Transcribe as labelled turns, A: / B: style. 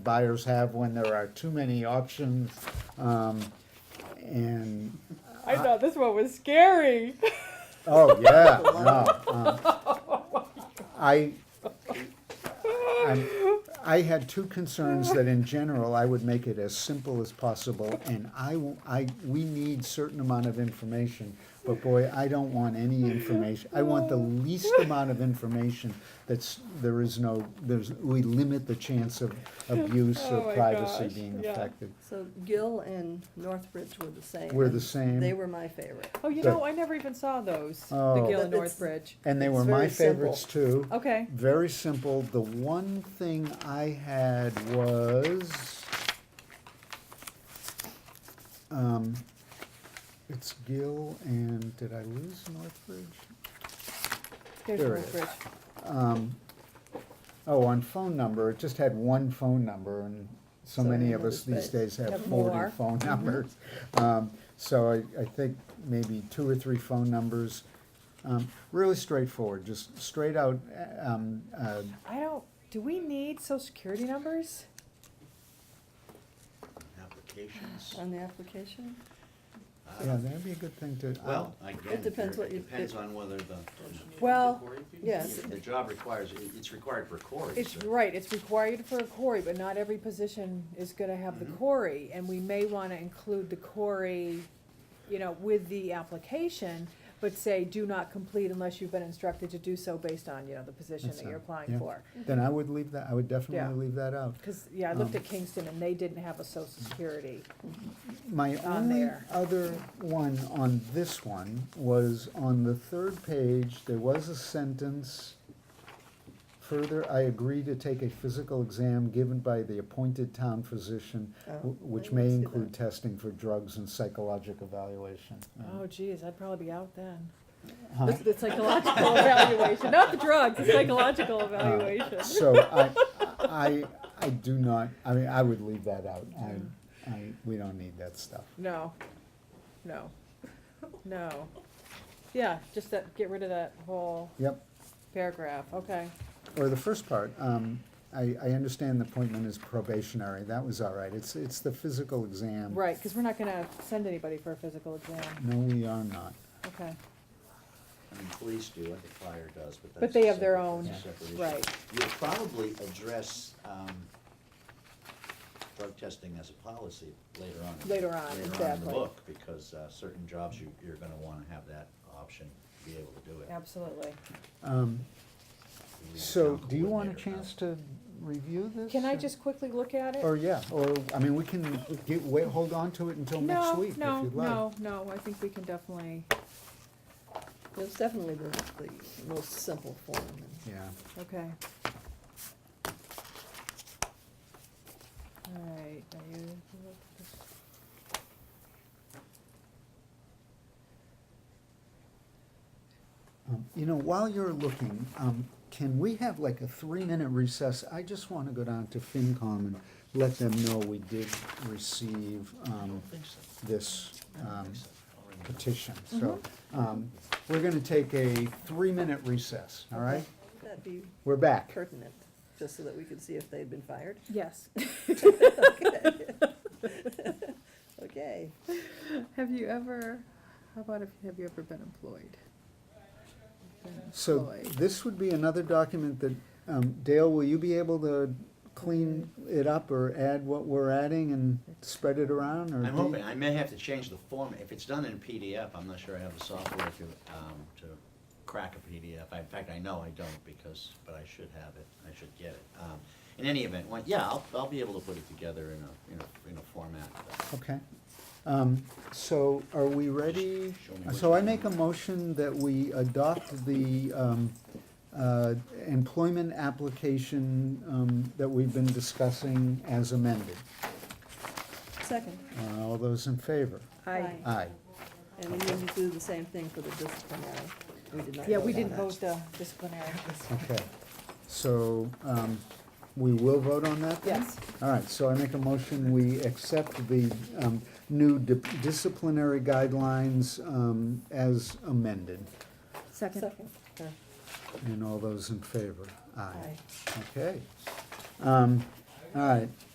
A: buyers have when there are too many options. Um, and,
B: I thought this one was scary.
A: oh, yeah, no. um, I, I'm, I had two concerns that in general, I would make it as simple as possible, and I, w- I- we need certain amount of information, but boy, I don't want any information, I want the least amount of information that's, there is no, there's, we limit the chance of abuse
B: Oh
A: or
B: my
A: privacy
B: gosh,
A: being
B: yeah.
A: affected.
C: So Gill and Northbridge were the same.
A: Were the
C: and
A: same.
C: They were my favorite.
B: Oh, you
A: The-
B: know, I never even saw those, the
A: Oh.
B: Gill
C: But
B: and
C: it's-
B: Northbridge.
A: And they
C: It's
A: were my
C: very simple.
A: favorites too.
B: Okay,
A: Very simple. The one thing I had was, um, it's Gill and, did I lose Northbridge?
B: there's
A: There it is.
B: Northbridge.
A: Um, oh, on phone number, it just had one phone number and so
C: So
A: many
C: many
A: of us
C: others,
A: these
C: but
A: days have
C: have
A: forty
C: more.
A: phone numbers. Um, so I, I think maybe two or three phone numbers. Um, really straightforward, just straight out, uh, um, uh,
B: I don't, do we need social security numbers?
D: applications.
B: Uh,
C: On the application,
D: I
A: Yeah,
D: don't-
A: that'd be a good thing to,
D: Well,
A: well,
D: again, if
C: depends
D: you're-
C: what you-
D: it depends
C: it-
D: on whether the.
B: Well,
C: yes.
D: If The job requires, it- it's required for Cory.
B: It's,
D: so-
B: right, it's required for a quarry, but not every position is gonna have the
A: Mm-hmm.
D: Mhm.
B: quarry, and we may wanna include the quarry, you know, with the application, but say, do not complete unless you've been instructed to do so based on, you know, the position
A: That's
B: that you're
A: right,
B: applying
A: yeah.
B: for.
A: then I would leave that, I would
B: Yeah.
A: definitely leave that out.
B: Cause, yeah, I looked
A: Um,
B: at Kingston and they didn't have a social security.
A: My
B: on
A: only
B: there.
A: other one on this one was on the third page, there was a sentence. Further, I agree to take a physical exam given by the appointed town physician,
C: Oh,
A: wh-
C: I
A: which
C: didn't
A: may
C: see
A: include
C: that.
A: testing for drugs and psychological evaluation. Um,
B: Oh geez, I'd probably be out then.
A: Huh?
B: The, the psychological evaluation, not the drugs, the
A: Uh,
B: psychological evaluation.
A: So I, I, I do not, I mean, I would leave that out. I, I, we don't need that stuff.
B: No, no, no. Yeah, just that, get rid of that whole
A: Yep,
B: paragraph, okay.
A: or the first part, um, I, I understand the appointment is probationary, that was all right, it's, it's the physical exam.
B: Right, because we're not gonna send anybody for a physical exam,
A: No, we are not,
B: okay.
D: I mean, police do, I think fire does, but that's.
B: But
D: a
B: they have their
D: separate-
B: own,
D: that's a separate issue.
B: right.
D: You'll probably address, um, drug testing as a policy later on. in-
B: Later on,
D: in
B: exactly.
D: the book, because, uh, certain jobs, you, you're gonna wanna have that option, to be able to do it.
B: Absolutely.
A: um,
D: Leave the
A: so,
D: town
A: do you want a
D: coordinator out.
A: chance to review this?
B: Can I
A: or-
B: just quickly look at it?
A: Or, yeah, or, I mean, we can get, wait, hold on to it until next week, if you'd
B: No,
A: like.
B: no, no, no, I think we can definitely,
C: It's definitely the, the most simple form.
A: Yeah,
B: okay. All right, are you?
A: um, you know, while you're looking, um, can we have like a three-minute recess? I just wanna go down to FinCom and let them know we did receive,
D: I
A: um,
D: don't think so.
A: this,
D: I don't
A: um,
D: think so. I'll remember.
A: petition. So, um, we're gonna take a three-minute recess, all right?
C: That'd be
A: We're back.
C: pertinent, just so that we could see if they'd been fired.
B: Yes.
C: Okay,
B: Have you ever, how about if, have you ever been employed? Been
A: So
B: employed.
A: this would be another document that, um, Dale, will you be able to clean it up or add what we're adding and spread it around or?
D: I'm
A: do-
D: hoping, I may have to change the format, if it's done in PDF, I'm not sure I have the software to, um, to crack a PDF. In fact, I know I don't because, but I should have it, I should get it. Um, in any event, when, yeah, I'll, I'll be able to put it together in a, in a, in a format. that-
A: Okay. Um, so are we ready? Uh,
D: Show me
A: So
D: which
A: I make a
D: one.
A: motion that we adopt the, um, uh, employment application, um, that we've been discussing as amended.
C: second,
A: Uh, All those in favor?
B: I,
C: Aye.
A: Aye.
C: and we need to do the same thing for the disciplinary. We did not.
B: yeah, we
C: vote on
B: didn't
C: that.
B: vote the disciplinary.
A: Okay. So, um, we will vote on that then?
B: Yes.
A: All right, so I make a motion, we accept the, um, new di- disciplinary guidelines, um, as amended.
B: Second.
C: Second,
A: And all those in favor?
C: aye.
A: Okay. Um, all right,